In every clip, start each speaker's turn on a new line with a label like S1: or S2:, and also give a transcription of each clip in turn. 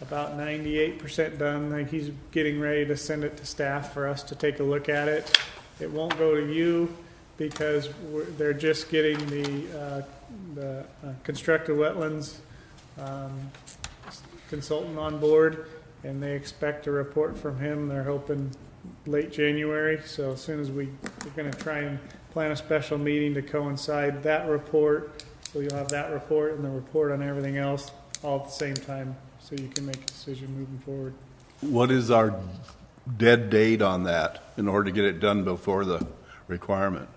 S1: about ninety-eight percent done. Like he's getting ready to send it to staff for us to take a look at it. It won't go to you because we're, they're just getting the, uh, the uh, constructive wetlands, um, consultant on board and they expect a report from him. They're hoping late January. So as soon as we, we're gonna try and plan a special meeting to coincide that report. So you'll have that report and the report on everything else all at the same time, so you can make a decision moving forward.
S2: What is our dead date on that in order to get it done before the requirement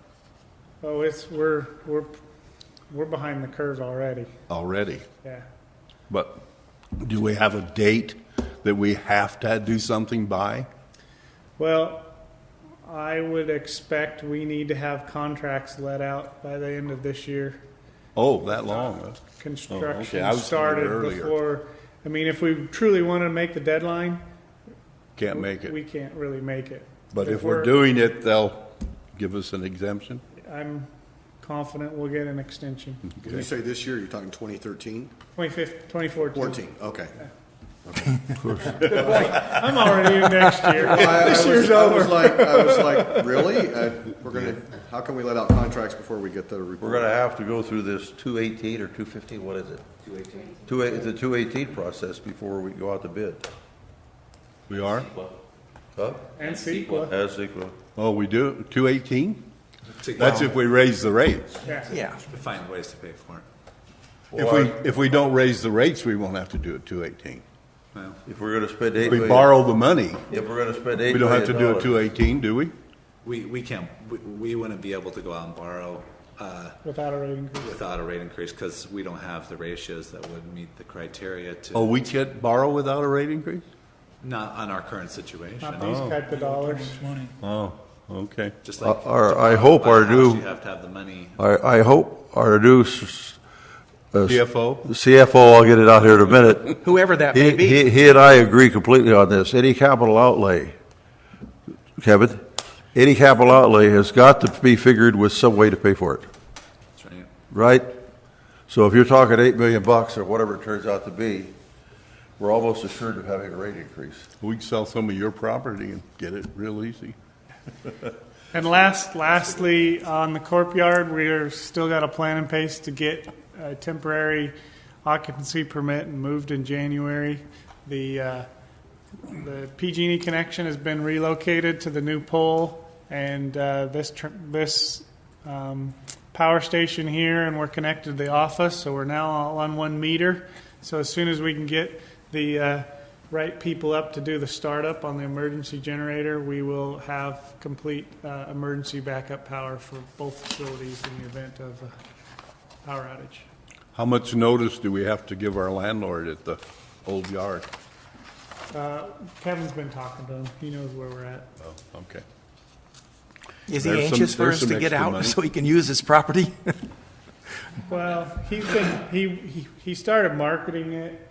S1: Oh, it's, we're, we're, we're behind the curve already,
S2: already?
S1: yeah.
S2: But do we have a date that we have to do something by?
S1: Well, I would expect we need to have contracts let out by the end of this year.
S2: Oh, that long? Oh, I
S1: Construction
S2: was thinking
S1: started
S2: earlier.
S1: before, I mean, if we truly wanted to make the deadline,
S2: Can't make
S1: we
S2: it.
S1: can't really make it.
S2: But if we're doing it, they'll give us an exemption?
S1: I'm confident we'll get an extension.
S2: Mm-hmm.
S3: When you say this year, you're talking 2013,
S1: Twenty-fifth, twenty-fourteen.
S3: 14, okay.
S1: I'm already in next year.
S3: I I
S1: This year's
S3: was I was
S1: over.
S3: like, I was like, really? Uh, We're gonna, how can we let out contracts before we get the
S4: We're
S3: report?
S4: gonna have to go through this two eighteen or two fifteen, what is it? Two eighteen. Two, eight- the two eighteen process before we go out to bid.
S2: We are?
S4: Huh?
S1: And CEQA.
S4: As equal.
S2: Oh, we do, two eighteen? That's if we raise the rates.
S1: Yeah.
S4: Yeah.
S5: Find ways to pay for it.
S2: If we, if we don't raise the rates, we won't have to do it two eighteen.
S5: Well,
S4: If we're gonna spend eight
S2: If we
S4: million.
S2: borrow the money,
S4: If we're gonna spend eight
S2: we don't have to do
S4: million
S2: it two
S4: dollars.
S2: eighteen, do we?
S5: we, we can't, we, we wouldn't be able to go out and borrow, uh,
S1: Without a rate increase.
S5: without a rate increase because we don't have the ratios that would meet the criteria
S2: Oh,
S5: to,
S2: we can't borrow without a rate increase?
S5: not on our current situation.
S1: Not these type of dollars.
S2: Oh, okay.
S5: Just
S4: Uh,
S5: like.
S4: our-
S5: to
S4: I hope
S5: buy a
S4: our
S5: house,
S4: new-
S5: You have to have the money.
S4: I, I hope our new s- uh,
S2: CFO?
S4: CFO, I'll get it out here in a minute.
S6: whoever that
S4: He,
S6: may be.
S4: he, he and I agree completely on this. Any capital outlay, Kevin, any capital outlay has got to be figured with some way to pay for it.
S5: That's right.
S4: right? So if you're talking eight million bucks or whatever it turns out to be, we're almost assured of having a rate increase.
S2: We can sell some of your property and get it real easy.
S1: And last, lastly, on the corp yard, we're still got a plan in place to get a temporary occupancy permit and moved in January. The, uh, the PG&E E connection has been relocated to the new pole and, uh, this, tr- this, um, power station here and we're connected to the office, so we're now all on one meter. So as soon as we can get the, uh, right people up to do the startup on the emergency generator, we will have complete, uh, emergency backup power for both facilities in the event of a power outage.
S2: How much notice do we have to give our landlord at the old yard?
S1: Uh, Kevin's been talking to him, he knows where we're at.
S2: Oh, okay.
S6: Is he
S2: There's some-
S6: anxious for
S2: there's
S6: us
S2: some
S6: to get
S2: extra
S6: out
S2: money.
S6: so he can use his property?
S1: Well, he's been, he, he, he started marketing it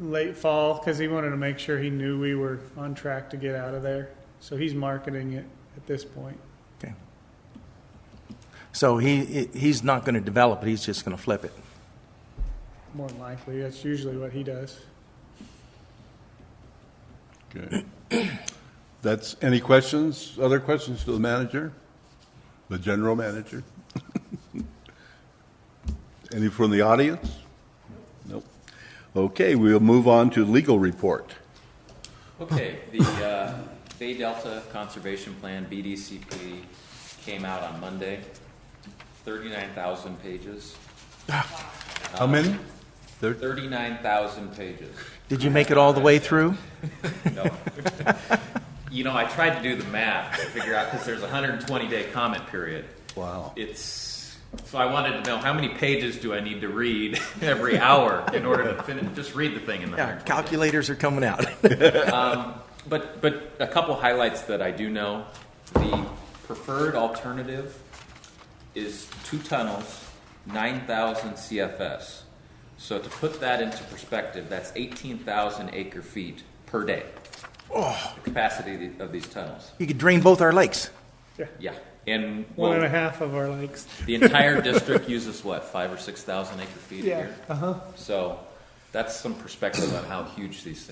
S1: late fall because he wanted to make sure he knew we were on track to get out of there. So he's marketing it at this point.
S6: Okay. So he, he- he's not going to develop it, he's just going to flip it.
S1: More than likely, that's usually what he does.
S2: Good. That's, any questions, other questions to the manager? The general manager? Any from the audience? Nope. Okay, we'll move on to legal report.
S7: Okay, the uh, Bay Delta Conservation Plan, BDCP, came out on Monday, 39,000 pages,
S2: How many? There-
S7: 39,000 pages.
S6: Did you make it all the way through?
S7: No. You know, I tried to do the math to figure out, because there's a 120-day comment period.
S2: Wow.
S7: It's, so I wanted to know, how many pages do I need to read every hour in order to finish, just read the thing in the
S6: Yeah,
S7: 120 days?
S6: calculators are coming out.
S7: But, but a couple highlights that I do know. The preferred alternative is two tunnels, 9,000 CFS. So to put that into perspective, that's 18,000 acre feet per day. Oh. The capacity of these tunnels.
S6: You could drain both our lakes.
S7: Yeah. And
S1: One and a
S7: well,
S1: half of our lakes.
S7: the entire district uses what, five or 6,000 acre feet a
S1: Yeah, Uh-huh.
S7: year? Uh huh. So that's some perspective on how huge these things